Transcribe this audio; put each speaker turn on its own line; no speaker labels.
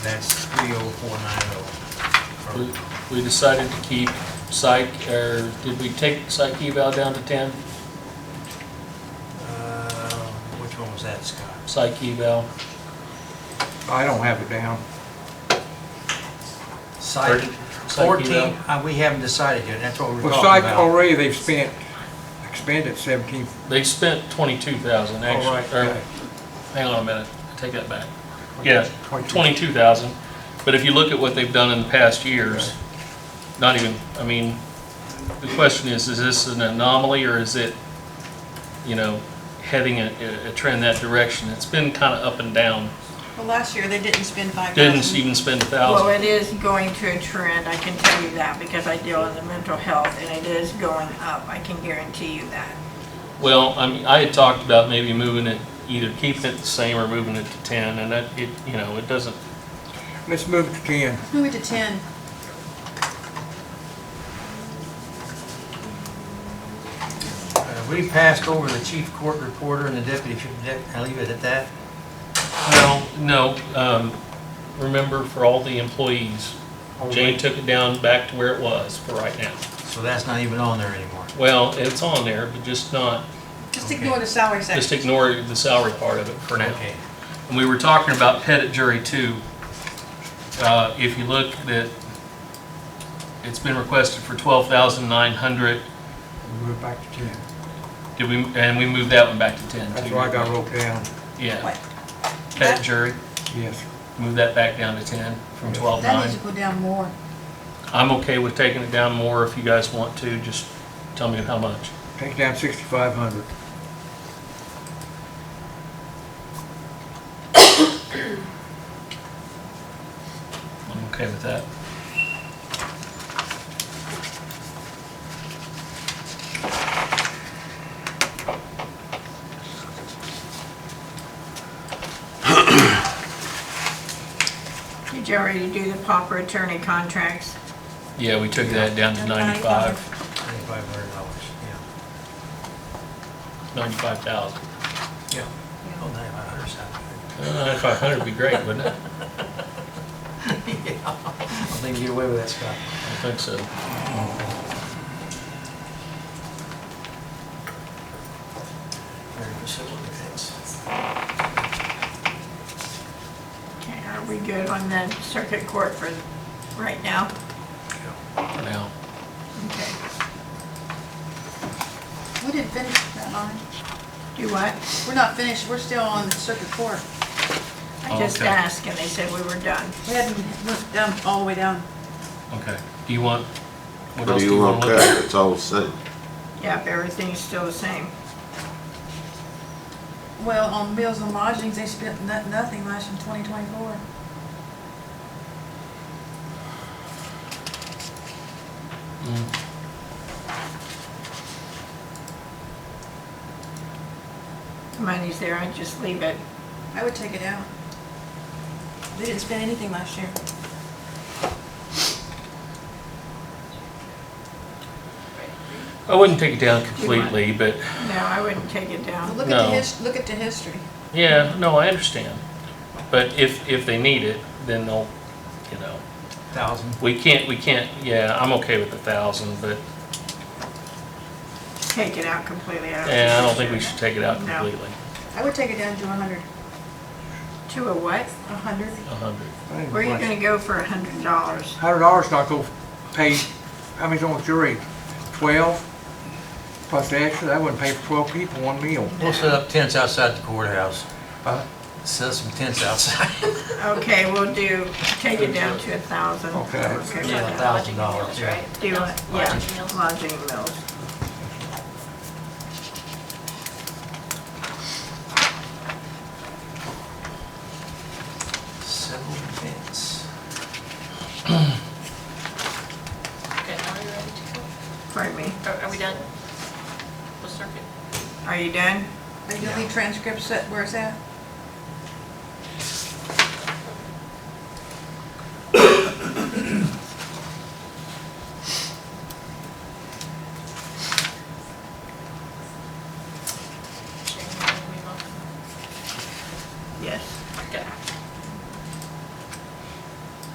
That's 30490.
We-
oh.
We decided to keep psych, or did we take psych eval down to 10?
Uh, Which one was that, Scott?
Psych eval,
I don't have it down.
Site
Psych
14,
eval.
uh, we haven't decided yet, that's what we're
Well,
talking
psych,
about.
already they've spent, expended seventeen,
They spent 22,000
all right,
actually, or,
okay.
hang on a minute, I take that back. Yeah, 22,000, but if you look at what they've done in the past years, not even, I mean, the question is, is this an anomaly or is it, you know, heading a, a trend that direction? It's been kind of up and down,
Well, last year, they didn't spend five
didn't
thousand.
even spend a
Well,
1,000.
it is going to a trend, I can tell you that, because I deal in the mental health, and it is going up, I can guarantee you that.
Well, I mean, I had talked about maybe moving it, either keeping it the same or moving it to 10, and that, it, you know, it doesn't,
Let's move to ten.
Move it to ten.
Uh, We passed over the chief court reporter and the deputy, chief dep- I'll leave it at that.
no, no, um, remember for all the employees, Jane took it down back to where it was for right now.
So that's not even on there anymore.
Well, it's on there, but just not,
Just
Okay.
ignore the salary
just
section.
ignore the salary part of it for now.
Okay.
And we were talking about pettit jury too. Uh, if you look that, it's been requested for twelve thousand nine hundred.
Move back to ten.
Did we, and we moved that one back to ten too.
That's what I got wrote down,
Yeah,
What?
pettit jury,
yes.
move that back down to ten from twelve
That
nine.
needs to go down more.
I'm okay with taking it down more if you guys want to, just tell me how much.
Take down sixty-five hundred.
I'm okay with that.
Did you already do the pauper attorney contracts?
Yeah, we took that down to ninety-five.
Twenty-five hundred dollars, yeah.
95,000.
Yeah. Oh, ninety-five hundred sounds
Uh, 9,500 would be great, wouldn't it?
good. Yeah. I think you get away with that, Scott.
I think so.
Very specific, that's-
Okay, are we good on the circuit court for right now?
For now.
Okay.
We didn't finish that line.
Do what?
We're not finished, we're still on the circuit court.
I just
Oh, Okay.
asked, and they said we were done.
We hadn't went down, all the way down.
Okay. Do you want, what
What
else
do
do
you want to
look at?
cut? It's all the same.
Yep, everything's still the same.
Well, on bills and lodgings, they spent no- nothing last in twenty twenty-four.
Mm,
Money's there, I just leave it.
I would take it out. They didn't spend anything last year.
I wouldn't take it down completely, but,
No, I wouldn't take it
But
down.
Look at
No.
the his, look at the history.
yeah, no, I understand. But if, if they need it, then they'll, you know,
Thousand.
we can't, we can't, yeah, I'm okay with the 1,000, but,
Take it out completely.
yeah, I don't think we should take it out
No.
completely.
I would take it down to a hundred,
To a what?
a hundred.
100.
Where are you gonna go for a hundred dollars?
Hundred dollars not gonna pay, how many's on the jury? Twelve? Plus the extra, that wouldn't pay for twelve people, one meal.
We'll set up tents outside the courthouse.
Huh?
Set up some tents outside.
Okay, we'll do, take it down to a thousand.
Okay.
with
Yeah,
that.
thousand dollars, yeah.
Do it, yeah, lodging bills.
Several tents.
Okay, now are you ready to go?
Pardon me,
Are- Are we done? with circuit?
are you done?
Are you gonna leave transcripts at where it's at?